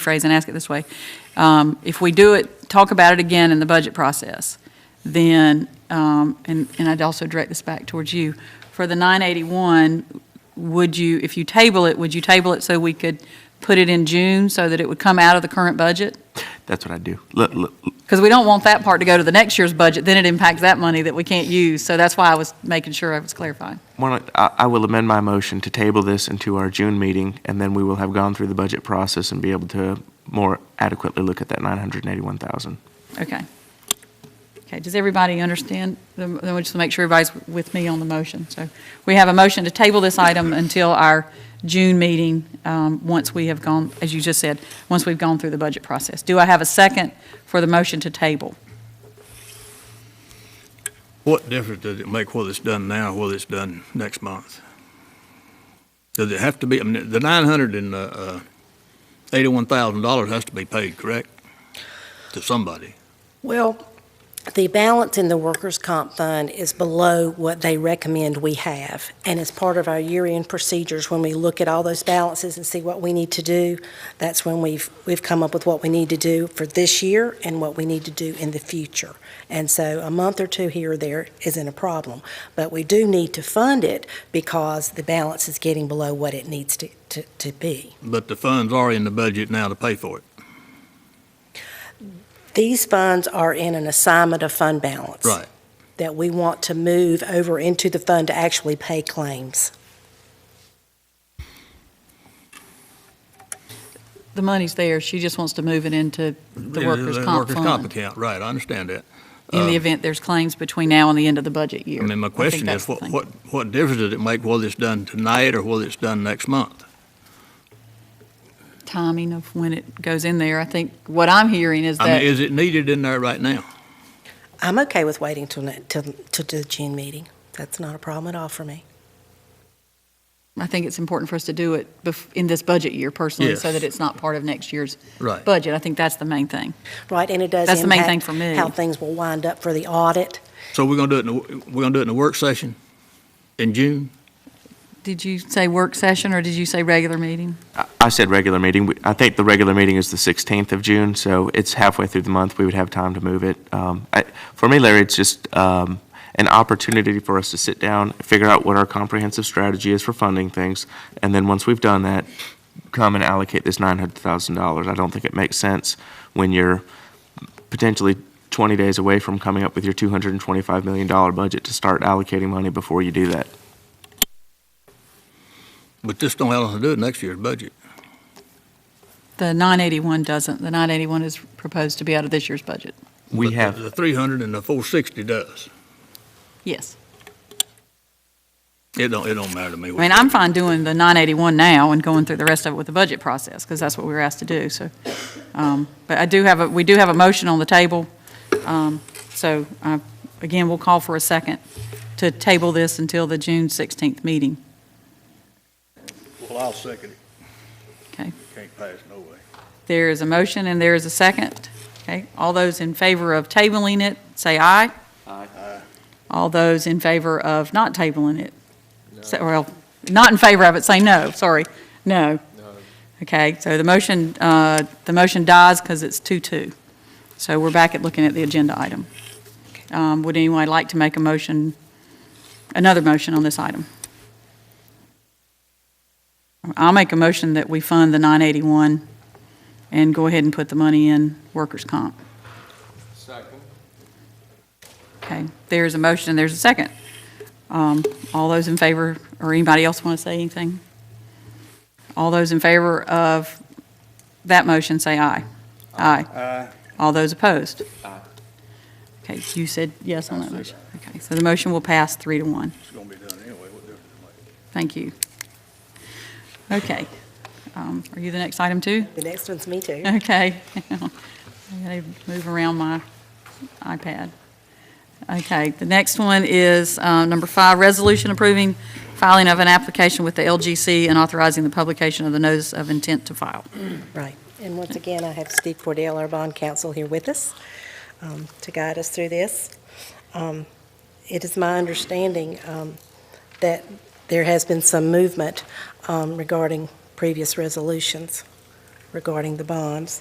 phrase and ask it this way. Um, If we do it, talk about it again in the budget process, then, um, and, and I'd also direct this back towards you, for the 981, would you, if you table it, would you table it so we could put it in June so that it would come out of the current budget? That's what I do. Look, look, Because we don't want that part to go to the next year's budget, then it impacts that money that we can't use. So that's why I was making sure I was clarifying. one of- I I will amend my motion to table this into our June meeting, and then we will have gone through the budget process and be able to more adequately look at that 981,000. Okay. Okay, does everybody understand? Then then we'll just make sure everybody's with me on the motion. So we have a motion to table this item until our June meeting, um, once we have gone, as you just said, once we've gone through the budget process. Do I have a second for the motion to table? What difference does it make whether it's done now, or whether it's done next month? Does it have to be, I mean, the nine hundred and, uh, uh, eighty-one thousand dollars has to be paid, correct? To somebody. Well, the balance in the workers' comp fund is below what they recommend we have. And as part of our year-end procedures, when we look at all those balances and see what we need to do, that's when we've, we've come up with what we need to do for this year and what we need to do in the future. And so a month or two here or there isn't a problem. But we do need to fund it because the balance is getting below what it needs to, to, to be. But the funds are in the budget now to pay for it. These funds are in an assignment of fund balance. Right. that we want to move over into the fund to actually pay claims. The money's there, she just wants to move it into the workers' comp Workers' comp fund account, right, I understand that. in the Uh, event there's claims between now and the end of the budget year. I mean, my think question that's is, the what, thing. what, what difference does it make whether it's done tonight or whether it's done next month? Timing of when it goes in there, I think what I'm hearing is I that mean, is it needed in there right now? I'm okay with waiting till, ne- till, till the June meeting. That's not a problem at all for me. I think it's important for us to do it bef- in this budget year personally, so Yes. that it's not part of next year's Right. budget. I think that's the main thing. Right, and it does That's the main thing impact for me. how things will wind up for the audit. So we're gonna do it in, the- we're gonna do it in the work session in June? Did you say work session, or did you say regular meeting? I- I said regular meeting. We- I think the regular meeting is the 16th of June, so it's halfway through the month. We would have time to move it. Um, I- For me, Larry, it's just um, an opportunity for us to sit down, figure out what our comprehensive strategy is for funding things, and then once we've done that, come and allocate this $900,000. I don't think it makes sense when you're potentially 20 days away from coming up with your $225 million budget to start allocating money before you do that. But this don't have anything to do with next year's budget. The 981 doesn't. The 981 is proposed to be out of this year's budget. We But the- have. The 300 and the 460 does. Yes. It don't, it don't matter to me. I mean, I'm fine doing the 981 now and going through the rest of it with the budget process, because that's what we were asked to do, so. um, But I do have, a we do have a motion on the table. Um, So uh, again, we'll call for a second to table this until the June 16th meeting. Well, I'll second it. Okay. Can't pass, no way. There is a motion and there is a second. Okay, all those in favor of tabling it, say aye. Aye. All those in favor of not tabling it, say- well, not in favor of it, say no, sorry, no. Okay, so the motion, uh, the motion dies because it's two-two. So we're back at looking at the agenda item. Um, Would anyone like to make a motion, another motion on this item? I'll make a motion that we fund the 981 and go ahead and put the money in workers' comp. Second. Okay, there's a motion, and there's a second. Um, All those in favor, or anybody else want to say anything? All those in favor of that motion, say aye. Aye. Aye. All those opposed? Aye. Okay, you said yes on that motion. Okay, so the motion will pass three to one. It's gonna be done anyway, what difference does it make? Thank you. Okay, Um, are you the next item, too? The next one's me too. Okay. I gotta move around my iPad. Okay, the next one is uh, number five, resolution approving filing of an application with the LGC and authorizing the publication of the notice of intent to file. Right. And once again, I have Steve Cordell, our bond counsel, here with us um, to guide us through this. Um, It is my understanding um, that there has been some movement um, regarding previous resolutions. regarding the bonds.